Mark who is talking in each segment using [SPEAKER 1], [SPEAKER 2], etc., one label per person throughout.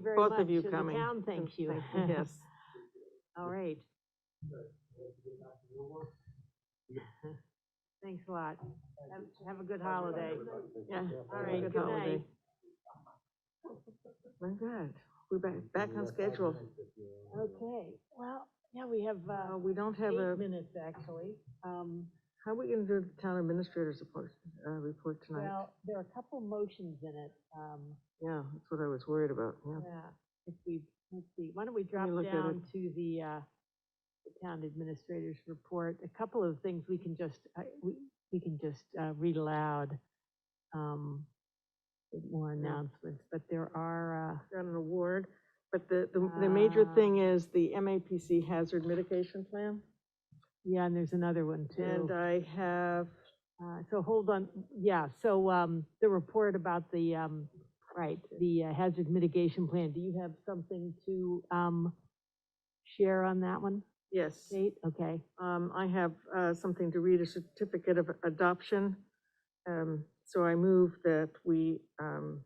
[SPEAKER 1] very much.
[SPEAKER 2] Both of you
[SPEAKER 1] and
[SPEAKER 2] coming.
[SPEAKER 1] The town thanks you.
[SPEAKER 2] Yes.
[SPEAKER 1] All right, thanks a lot. Have, have a good holiday.
[SPEAKER 2] Yeah.
[SPEAKER 1] All right, good night.
[SPEAKER 2] My God, we're back, back on schedule.
[SPEAKER 1] Okay, well, yeah, we have,
[SPEAKER 2] Uh,
[SPEAKER 1] uh,
[SPEAKER 2] we don't have a,
[SPEAKER 1] eight minutes actually. Um,
[SPEAKER 2] how are we gonna do the town administrator's report, uh, report tonight?
[SPEAKER 1] well, there are a couple motions in it, um,
[SPEAKER 2] Yeah, that's what I was worried about, yeah.
[SPEAKER 1] yeah, if we, let's see, why don't we drop
[SPEAKER 2] look at
[SPEAKER 1] down to the, uh, the town administrator's report, a couple of things we can just, I, we, we can just, uh, read aloud, um, with more announcements, but there are, uh,
[SPEAKER 2] Got an award, but the, the, the major
[SPEAKER 1] Ah.
[SPEAKER 2] thing is the MAPC hazard mitigation plan.
[SPEAKER 1] yeah, and there's another one too.
[SPEAKER 2] And I have,
[SPEAKER 1] Uh, So hold on, yeah, so um, the report about the, um, right, the uh, hazard mitigation plan, do you have something to um, share on that one,
[SPEAKER 2] yes,
[SPEAKER 1] Kate? Okay,
[SPEAKER 2] um, I have, uh, something to read, a certificate of adoption. Um, so I move that we, um,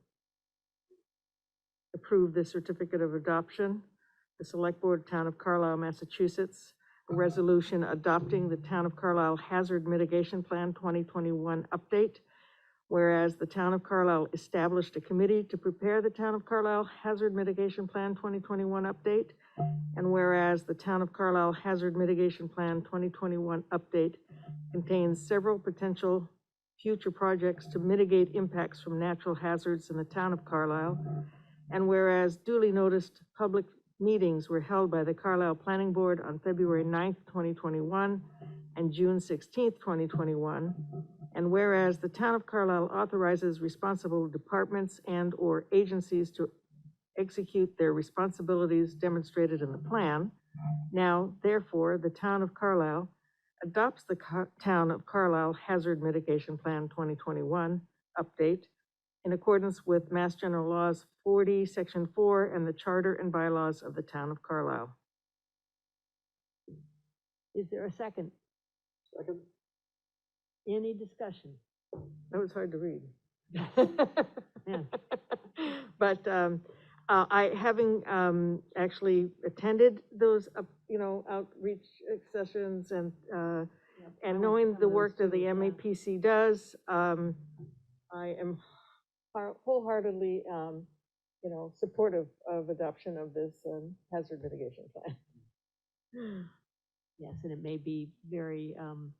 [SPEAKER 2] approve the certificate of adoption, the Select Board, Town of Carlisle, Massachusetts, a resolution adopting the Town of Carlisle Hazard Mitigation Plan 2021 update, whereas the Town of Carlisle established a committee to prepare the Town of Carlisle Hazard Mitigation Plan 2021 update, and whereas the Town of Carlisle Hazard Mitigation Plan 2021 update contains several potential future projects to mitigate impacts from natural hazards in the Town of Carlisle, and whereas duly noticed public meetings were held by the Carlisle Planning Board on February 9th, 2021, and June 16th, 2021, and whereas the Town of Carlisle authorizes responsible departments and/or agencies to execute their responsibilities demonstrated in the plan, now therefore, the Town of Carlisle adopts the Car- Town of Carlisle Hazard Mitigation Plan 2021 update in accordance with Mass General Laws 40, Section 4, and the Charter and bylaws of the Town of Carlisle.
[SPEAKER 1] is there a second?
[SPEAKER 3] Second?
[SPEAKER 1] Any discussion?
[SPEAKER 2] That was hard to read.
[SPEAKER 1] Yeah.
[SPEAKER 2] But um, uh, I, having um, actually attended those, uh, you know, outreach sessions and, uh,
[SPEAKER 1] Oh,
[SPEAKER 2] and knowing the work that the MAPC does, um, I am har- wholeheartedly, um, you know, supportive of adoption of this um, hazard mitigation plan.
[SPEAKER 1] Yes, and it may be very, um,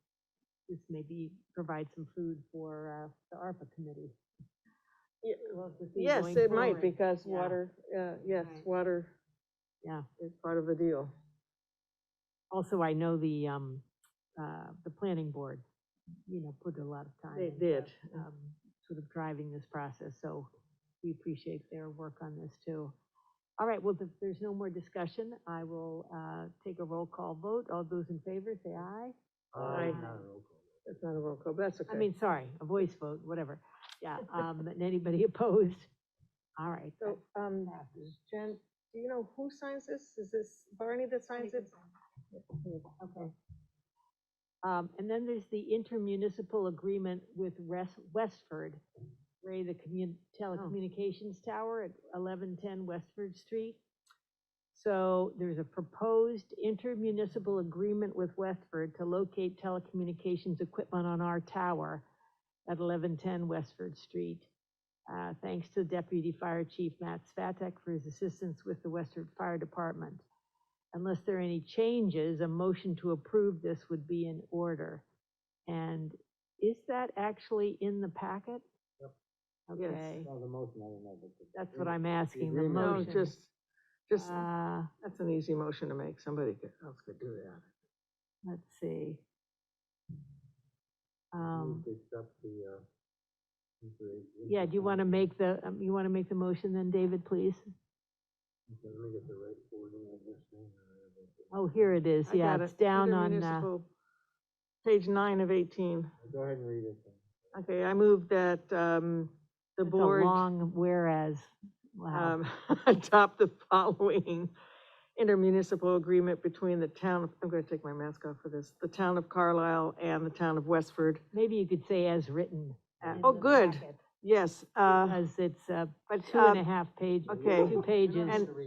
[SPEAKER 1] this may be, provide some food for uh, the ARPA committee.
[SPEAKER 2] Yeah,
[SPEAKER 1] We'll have to see
[SPEAKER 2] Yes,
[SPEAKER 1] going
[SPEAKER 2] it might,
[SPEAKER 1] forward.
[SPEAKER 2] because
[SPEAKER 1] Yeah.
[SPEAKER 2] water, uh, yes,
[SPEAKER 1] Right.
[SPEAKER 2] water
[SPEAKER 1] Yeah.
[SPEAKER 2] is part of the deal.
[SPEAKER 1] Also, I know the, um, uh, the planning board, you know, put a lot of time.
[SPEAKER 2] They
[SPEAKER 1] into,
[SPEAKER 2] did. Uh,
[SPEAKER 1] um, Sort of driving this process, so we appreciate their work on this too. All right, well, if there's no more discussion, I will, uh, take a roll call vote. All those in favor, say aye.
[SPEAKER 2] Aye.
[SPEAKER 3] Aye.
[SPEAKER 2] That's not a roll call, but that's okay.
[SPEAKER 1] I mean, sorry, a voice vote, whatever. Yeah, um, and anybody opposed? All right.
[SPEAKER 2] So, um,
[SPEAKER 1] passes.
[SPEAKER 2] Jen, do you know who signs this? Is this Barney that signs it?
[SPEAKER 1] Okay. Um, and then there's the intermunicipal agreement with Wes- Westford, Ray, the commun, telecommunications tower at eleven ten Westford Street. So there's a proposed intermunicipal agreement with Westford to locate telecommunications equipment on our tower at eleven ten Westford Street. Uh, thanks to Deputy Fire Chief Matt Svatek for his assistance with the Westford Fire Department. Unless there are any changes, a motion to approve this would be in order. And is that actually in the packet?
[SPEAKER 3] Yep.
[SPEAKER 2] Yes.
[SPEAKER 1] Okay,
[SPEAKER 3] No, the motion, I don't know. but the-
[SPEAKER 1] that's what I'm asking, the
[SPEAKER 3] agreement.
[SPEAKER 2] No,
[SPEAKER 1] motion.
[SPEAKER 2] just, just,
[SPEAKER 1] Uh,
[SPEAKER 2] that's an easy motion to make. Somebody could- else could do that.
[SPEAKER 1] let's see.
[SPEAKER 3] Move
[SPEAKER 1] Um,
[SPEAKER 3] to accept the, uh, the-
[SPEAKER 1] yeah, do you want to make the, um, you want to make the motion then, David, please?
[SPEAKER 3] Okay, Let me get the right wording of this thing.
[SPEAKER 1] Oh, here it is,
[SPEAKER 2] I
[SPEAKER 1] yeah,
[SPEAKER 2] got
[SPEAKER 1] it's
[SPEAKER 2] it.
[SPEAKER 1] down on, uh,
[SPEAKER 2] Intermunicipal, Page nine of eighteen.
[SPEAKER 3] Go ahead and read it. then.
[SPEAKER 2] Okay, I move that, um, the
[SPEAKER 1] it's a
[SPEAKER 2] board.
[SPEAKER 1] long whereas, wow.
[SPEAKER 2] um, adopt the following intermunicipal agreement between the town, of- I'm gonna take my mask off for this, the town of Carlisle and the town of Westford.
[SPEAKER 1] Maybe you could say as written.
[SPEAKER 2] Uh,
[SPEAKER 1] in
[SPEAKER 2] Oh,
[SPEAKER 1] the
[SPEAKER 2] good,
[SPEAKER 1] packet.
[SPEAKER 2] Yes, uh,
[SPEAKER 1] because it's, uh,
[SPEAKER 2] but,
[SPEAKER 1] two
[SPEAKER 2] uh,
[SPEAKER 1] Uh, and a half pages,
[SPEAKER 2] okay.
[SPEAKER 1] two pages.
[SPEAKER 2] And-